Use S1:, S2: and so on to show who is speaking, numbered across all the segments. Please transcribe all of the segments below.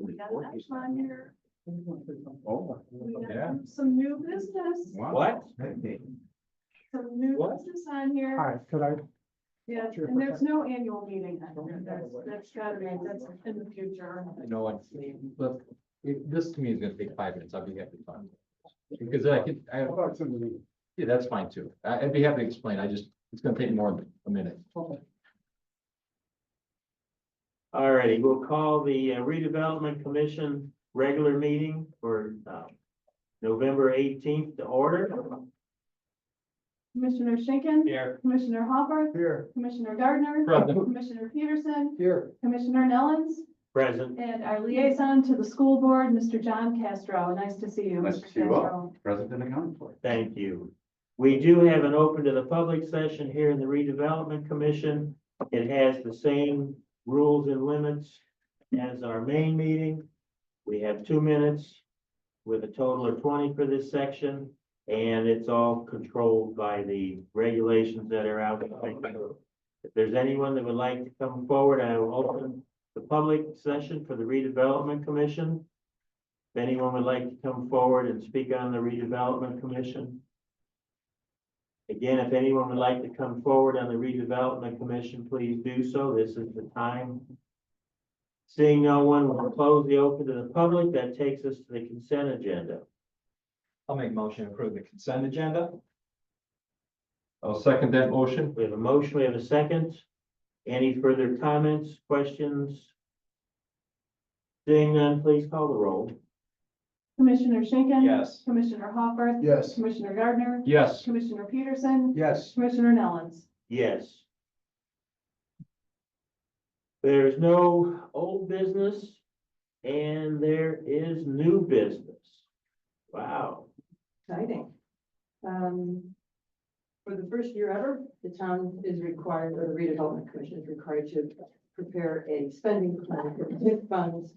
S1: life on here.
S2: Oh,
S1: We
S2: yeah.
S1: got some new business,
S2: Wow.
S3: What?
S1: some new
S3: What?
S1: business on here.
S4: Hi, could I,
S1: Yeah,
S4: Sure.
S1: and there's no annual meeting. on here. That's, that's gotta be, that's in the future.
S3: You know what, look, it- this to me is gonna take five minutes, I'll be happy to talk. Because I could, I,
S4: how about some of the,
S3: yeah, that's fine too, I- I'd be happy to explain, I just, it's gonna take more than a minute.
S5: All righty, we'll call the uh, redevelopment commission regular meeting for uh, November eighteenth to order.
S1: Commissioner Schinkin.
S5: Here.
S1: Commissioner Hopper,
S4: here,
S1: Commissioner Gardner,
S3: Present.
S1: Commissioner Peterson,
S4: here,
S1: Commissioner Nellens,
S5: Present.
S1: and our liaison to the school board, Mr. John Castro. Nice to see you.
S2: Nice
S1: Mr.
S2: to see you all.
S1: Castro.
S2: President accounting for.
S5: Thank you. We do have an open to the public session here in the redevelopment commission. It has the same rules and limits as our main meeting. We have two minutes with a total of twenty for this section. And it's all controlled by the regulations that are out. there. If there's anyone that would like to come forward, I will open the public session for the redevelopment commission. If anyone would like to come forward and speak on the redevelopment commission. Again, if anyone would like to come forward on the redevelopment commission, please do so. This is the time. Seeing no one, we'll close the open to the public. That takes us to the consent agenda.
S3: I'll make motion to approve the consent agenda. I'll second that motion.
S5: We have a motion, we have a second. Any further comments, questions? Seeing none, please call the roll.
S1: Commissioner Schinkin.
S3: Yes.
S1: Commissioner Hopper,
S4: yes,
S1: Commissioner Gardner,
S3: Yes,
S1: Commissioner Peterson,
S4: yes,
S1: Commissioner Nellens.
S5: Yes. There's no old business and there is new business. Wow,
S6: Exciting. Um, for the first year ever, the town is required, or the redevelopment commission is required to prepare a spending plan for TIF funds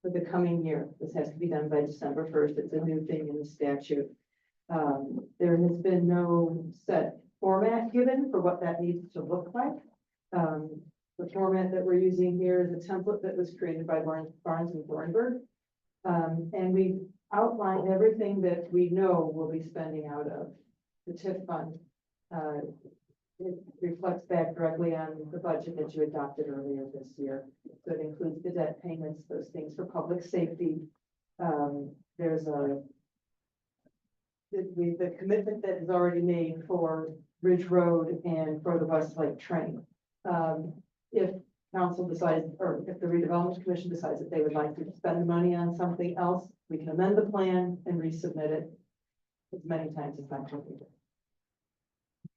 S6: for the coming year. This has to be done by December first. It's a new thing in the statute. Um, there has been no set format given for what that needs to look like. Um, the format that we're using here is a template that was created by Barnes, Barnes and Thornburg. Um, and we outline everything that we know we'll be spending out of the TIF fund. Uh, It reflects back directly on the budget that you adopted earlier this year. So it includes the debt payments, those things for public safety. Um, There's a the, we- the commitment that is already made for Ridge Road and for the West Lake Train. Um, If council decides, or if the redevelopment commission decides that they would like to spend the money on something else, we can amend the plan and resubmit it as many times as necessary.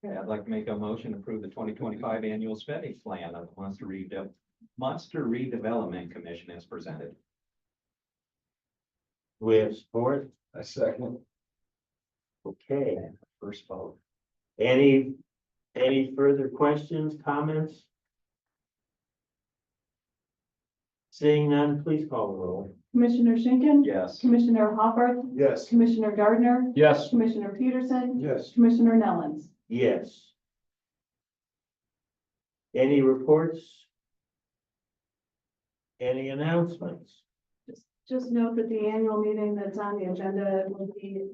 S7: Okay, I'd like to make a motion to approve the twenty twenty-five annual spending plan of the Munster Redev- Munster Redevelopment Commission as presented.
S5: we have support,
S2: A second.
S5: okay.
S7: First vote.
S5: Any, any further questions, comments? Seeing none, please call the roll.
S1: Commissioner Schinkin.
S7: Yes.
S1: Commissioner Hopper,
S4: yes,
S1: Commissioner Gardner,
S3: yes,
S1: Commissioner Peterson,
S4: yes.
S1: Commissioner Nellens.
S5: Yes. Any reports? Any announcements?
S1: Just note that the annual meeting that's on the agenda will be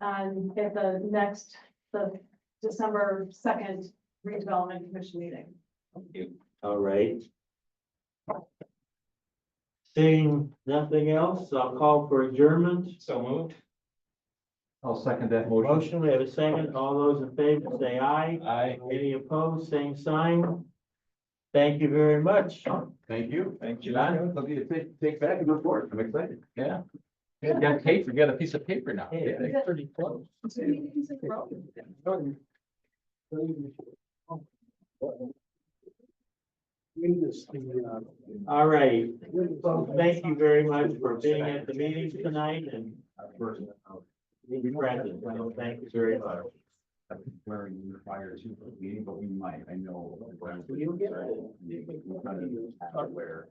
S1: on, at the next, the December second redevelopment commission meeting.
S5: All right. Seeing nothing else, I'll call for adjournment.
S7: So moved?
S3: I'll second that motion.
S5: Motion, we have a second. All those in favor say aye.
S7: Aye.
S5: Any opposed, same sign. Thank you very much.
S2: Thank you.
S7: Thank
S2: John, look at you, take, take back and report. I'm excited.
S3: Yeah. You got paper, you got a piece of paper now.
S5: Yeah.
S3: Yeah, Pretty close.
S5: All right. Thank you very much for being at the meeting tonight and being present. So Thank you very much.
S2: Where you require two for the meeting, but we might, I know.
S5: You'll get it. Oh,
S2: Where.